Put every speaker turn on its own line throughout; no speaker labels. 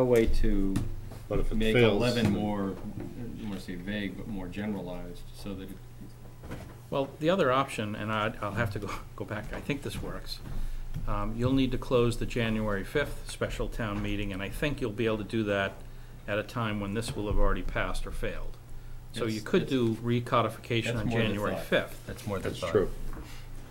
a way to
But if it
make
fails,
eleven
then-
more, I want to say vague, but more generalized, so that it
Well, the other option, and I, I'll have to go, go back, I think this works. Um, you'll need to close the January fifth special town meeting, and I think you'll be able to do that at a time when this will have already passed or failed. So you
It's-
could
it's-
do recodification
That's
on
more the
January
thought.
fifth,
That's more than
That's true.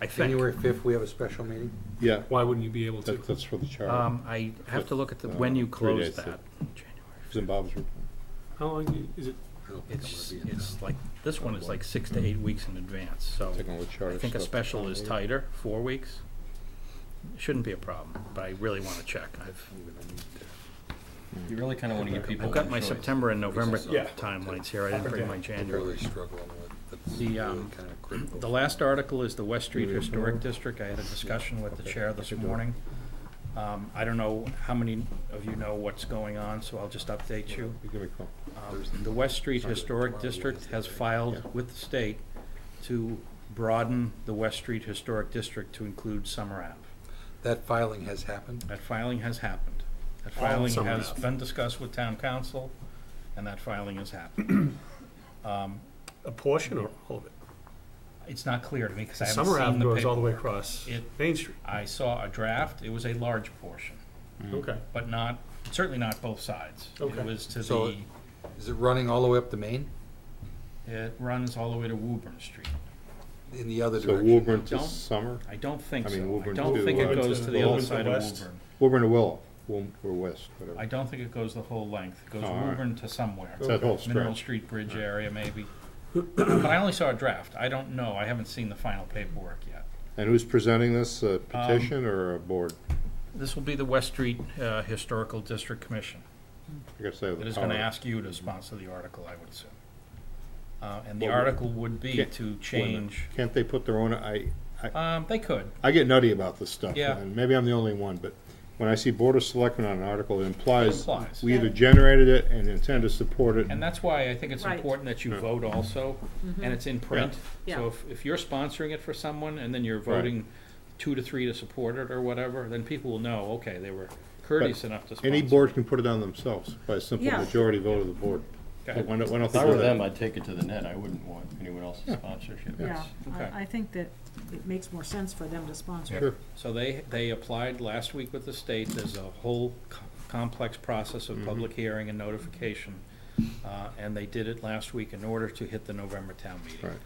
I think.
January 5th, we have a special meeting.
Yeah,
Why wouldn't you be able to?
that- that's for the charter.
Um, I have to look at the, when you
Three
close
days,
that.
so-
January.
It's in Bob's report.
How long you- is it?
I don't think I'm
It's,
gonna be in town.
it's like, this one is like six to eight weeks in advance, so
Taking all the charter
I think a
stuff.
special is tighter, four weeks. Shouldn't be a problem, but I really wanna check. I've,
I'm gonna need to-
You really kind of want to give people.
I've got
a
my
choice.
September and November
Yeah.
timelines here, I didn't bring my January.
Really struggling with, that's
The,
really
um,
kind of critical.
The last article is the West Street Historic District, I had a discussion with the chair this morning. Um, I don't know how many of you know what's going on, so I'll just update you.
You give me a call.
Um, The West Street Historic District has filed with the state to broaden the West Street Historic District to include Summer Ave.
That filing has happened.
That filing has happened. That filing
Summer
has
Ave.
been discussed with town council, and that filing has happened. Um,
A portion or all of it?
It's not clear to me, because I haven't
Summer
seen
Ave
the
goes all the way
paper.
across
It-
Main Street.
I saw a draft, it was a large portion, Mm-hmm.
Okay.
but not, certainly not both sides.
Okay.
It was to
So-
the,
Is it running all the way up to Maine
it runs all the way to Woburn Street.
in the other
So
direction?
Woburn to
Don't-
Summer,
I don't think
I
so.
mean,
I
Woburn
don't
to,
think
uh,
it goes to the
Woburn
other
to
side of
West.
Woburn.
Woburn to Willow, Wom- or West, whatever.
I don't think it goes the whole length. It goes
Oh, all right.
Woburn to somewhere.
It's that whole
Mineral
stretch.
Street Bridge area, maybe. But I only saw a draft. I don't know. I haven't seen the final paperwork yet.
And who's presenting this, a petition or a board?
This will be the West Street uh, Historical District Commission
I guess they have the
that is going to
power.
ask you to sponsor the article, I would assume. Uh, And the
Well, we-
article would be
Can't-
to
Wait a minute.
change,
Can't they put their own, I,
um, they could.
I get nutty about this stuff.
Yeah.
And maybe I'm the only one, but when I see Board of Selectmen on an article, it implies
Implies.
we either generated it and intend to support it.
And that's why I think it's
Right. Mm-hmm.
important that you vote also, and it's in print.
Yeah.
So
Yeah.
if, if you're sponsoring it for someone and then you're
Right.
voting two to three to support it or whatever, then people will know, okay, they were courteous enough to sponsor.
Any board can put it on themselves by a simple
Yeah.
majority vote of the board.
Okay.
But why don't, why don't
If
they
I
do
were them,
that?
I'd take it to the net. I wouldn't want anyone else's sponsorship.
Yeah,
Okay.
I, I think that it makes more sense for them to sponsor.
Sure.
So they, they applied last week with the state, there's a whole co- complex process of public
Mm-hmm.
hearing and notification. Uh, and they did it last week in order to hit the November town meeting.
Right.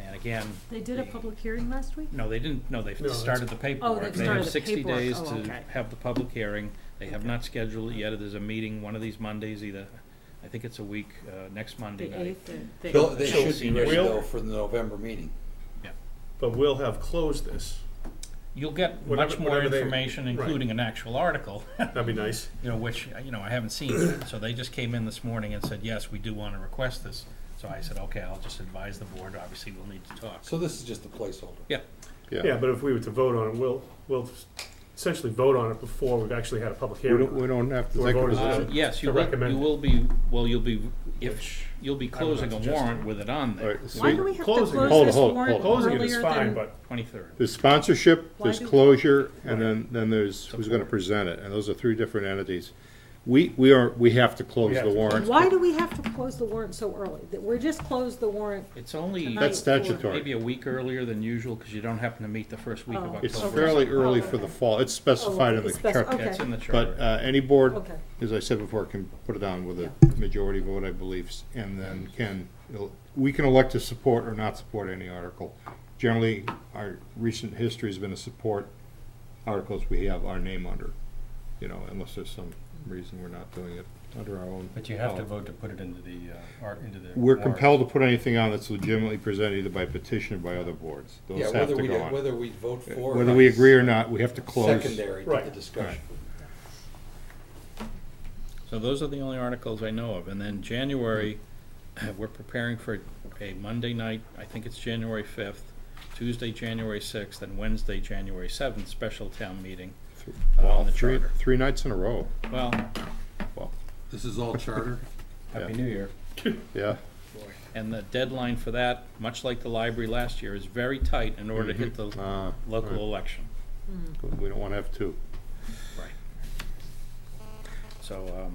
And again,
They did a public hearing last week?
No, they didn't, no, they've
No, that's-
started the paperwork.
they've
They have
Oh, started the
60
paperwork.
days
Oh,
to
okay.
have the public hearing. They have not scheduled it yet. There's a meeting one of these Mondays, either, I think it's a week, uh, next Monday
The
night.
eighth, the.
They'll- They should be ready
Will-
though for the November meeting.
But we'll have closed this.
You'll get much
Whatever-
more
whatever they-
information,
right.
including an actual article,
That'd be nice.
you know, which, you know, I haven't seen yet. So they just came in this morning and said, yes, we do want to request this. So I said, okay, I'll just advise the board. Obviously, we'll need to talk.
So this is just a placeholder.
Yeah,
Yeah.
Yeah, but if we were to vote on it, we'll, we'll essentially vote on it before we've actually had a public
We don't, we
hearing.
don't have to
We're
take a
voting on it.
Uh,
position.
yes, you
To
will,
recommend
you
it.
will be, well, you'll be, if,
Which
you'll be
not
closing a
suggesting.
warrant with it on
All
there,
right,
Why
see,
do we have to close
Closing it.
Hold it,
this
hold it,
warrant
hold
Closing it is
earlier
fine,
than?
but
23rd.
There's sponsorship,
Why
there's
do we-
closure, and then, then there's who's gonna present it, and those are three different entities. We, we are, we have to close
have
the
to close
warrant.
Why do we have to close the warrant so early? That we're just closed the warrant,
It's only.
Tonight.
That's statutory.
Maybe a week earlier than usual, because you don't happen to meet the first week of
Oh.
It's
October.
fairly early for the fall, it's specified in the
it's spec-
charter.
okay.
That's in the charter.
But, uh, any board,
okay.
as I said before, can put it down with a majority vote, I believe, s- and then can, we can elect to support or not support any article. Generally, our recent history has been to support articles we have our name under, you know, unless there's some reason we're not doing it under our own.
But you have to
policy.
vote to put it into the, uh, art, into the.
We're
warrant.
compelled to put anything on that's legitimately presented either by petition or by other boards.
Yeah,
Those have
whether
to
we,
go on. Uh,
whether we vote for. or
Whether
not
we
is
agree or not, we have to close.
Secondary to the
Right.
discussion.
So those are the only articles I know of. And then January, we're preparing for a Monday night, I think it's January 5th, Tuesday, January 6th, and Wednesday, January 7th, special town meeting uh, on the
Three,
charter.
three nights in a row,
Well,
This is all charter.
Happy New Year.
yeah.
and the deadline for that, much like the library last year, is very tight in order to hit the
Uh,
local election.
We don't want to have two.
Right. so, um,